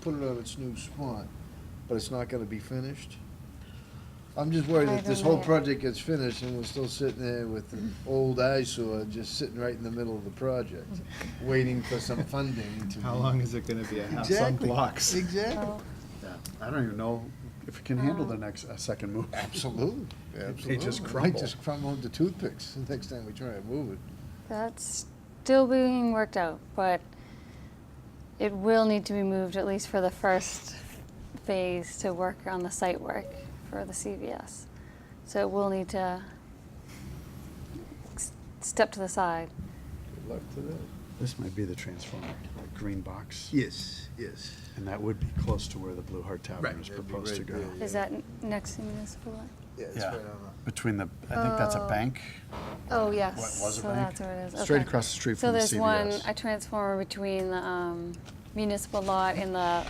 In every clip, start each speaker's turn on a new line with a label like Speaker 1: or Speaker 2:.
Speaker 1: put it on its new spot, but it's not gonna be finished? I'm just worried
Speaker 2: I
Speaker 1: that this
Speaker 2: don't
Speaker 1: whole
Speaker 2: know.
Speaker 1: project gets finished and we're still sitting there with the old eyesore just sitting right in the middle of the project, waiting for some funding to.
Speaker 3: How
Speaker 1: be-
Speaker 3: long is it gonna be? I have some
Speaker 1: Exactly,
Speaker 3: blocks.
Speaker 1: Exactly,
Speaker 2: So,
Speaker 3: Yeah, I don't even know if it can handle the next, a second move.
Speaker 1: absolutely, absolutely.
Speaker 3: They just
Speaker 1: Might
Speaker 3: crumble.
Speaker 1: just crumble into toothpicks the next time we try to move it.
Speaker 2: that's still being worked out, but it will need to be moved at least for the first phase to work on the site work for the CVS. So it will need to s- step to the side.
Speaker 1: Good luck to that.
Speaker 3: This might be the transformer, the green box,
Speaker 1: Yes, yes.
Speaker 3: and that would be close to where the Blue Heart Tavern
Speaker 1: Right,
Speaker 3: is
Speaker 1: that'd be
Speaker 3: proposed to
Speaker 1: right
Speaker 3: go.
Speaker 1: there, yeah.
Speaker 2: Is that n- next to municipal? line?
Speaker 1: Yeah, it's
Speaker 3: Yeah.
Speaker 1: right on the-
Speaker 3: Between the, I think that's a
Speaker 2: Oh.
Speaker 3: bank.
Speaker 2: Oh, yes.
Speaker 3: was a
Speaker 2: So
Speaker 3: bank?
Speaker 2: that's where it is.
Speaker 3: Straight
Speaker 2: okay.
Speaker 3: across the street
Speaker 2: So
Speaker 3: from the
Speaker 2: there's one,
Speaker 3: CVS.
Speaker 2: a transformer between the um, municipal lot and the,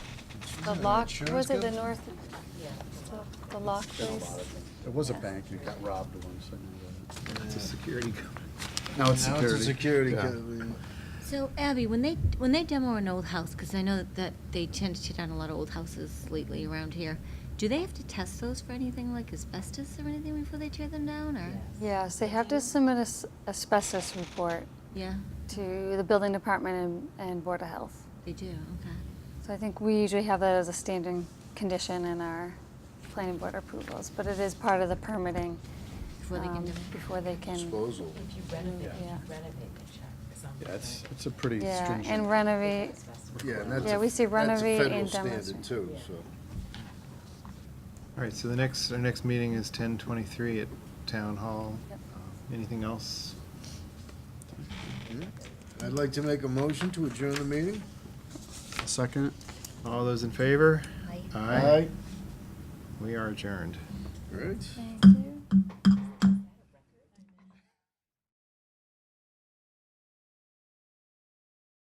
Speaker 1: Isn't
Speaker 2: the
Speaker 1: it an
Speaker 2: lock,
Speaker 1: insurance
Speaker 2: was it the
Speaker 1: company?
Speaker 2: north? the- The lock place?
Speaker 3: It was a
Speaker 2: Yeah.
Speaker 3: bank, and it got robbed once. I know that.
Speaker 1: It's a
Speaker 3: security company. Now it's
Speaker 1: Now
Speaker 3: security.
Speaker 1: it's a security
Speaker 3: Yeah.
Speaker 1: company.
Speaker 4: So Abby, when they, when they demo an old house, because I know that- that they tend to tear down a lot of old houses lately around here, do they have to test those for anything like asbestos or anything before they tear them down, or?
Speaker 2: Yes, they have to submit as- asbestos report
Speaker 4: Yeah,
Speaker 2: to the building department and, and Board of Health.
Speaker 4: they do, okay.
Speaker 2: So I think we usually have that as a standing condition in our planning board approvals, but it is part of the permitting.
Speaker 4: Before they
Speaker 2: um,
Speaker 4: can do it.
Speaker 2: Before they can.
Speaker 1: Disposal.
Speaker 5: If you renovate, if you
Speaker 2: Yeah.
Speaker 5: renovate the check, it's on.
Speaker 3: Yeah, it's, it's a pretty
Speaker 2: Yeah,
Speaker 3: stringent.
Speaker 2: and renovate,
Speaker 1: Yeah, and that's.
Speaker 2: Yeah,
Speaker 1: a-
Speaker 2: we say renovate and
Speaker 1: That's a federal standard
Speaker 2: demonstrate.
Speaker 1: too, so.
Speaker 6: All right, so the next, our next meeting is ten twenty-three at Town Hall.
Speaker 2: Yep.
Speaker 6: Um, Anything else?
Speaker 1: yeah. I'd like to make a motion to adjourn the meeting.
Speaker 3: Second?
Speaker 6: All those in favor?
Speaker 4: Aye.
Speaker 6: Aye. We are adjourned.
Speaker 1: All right.
Speaker 2: thank you.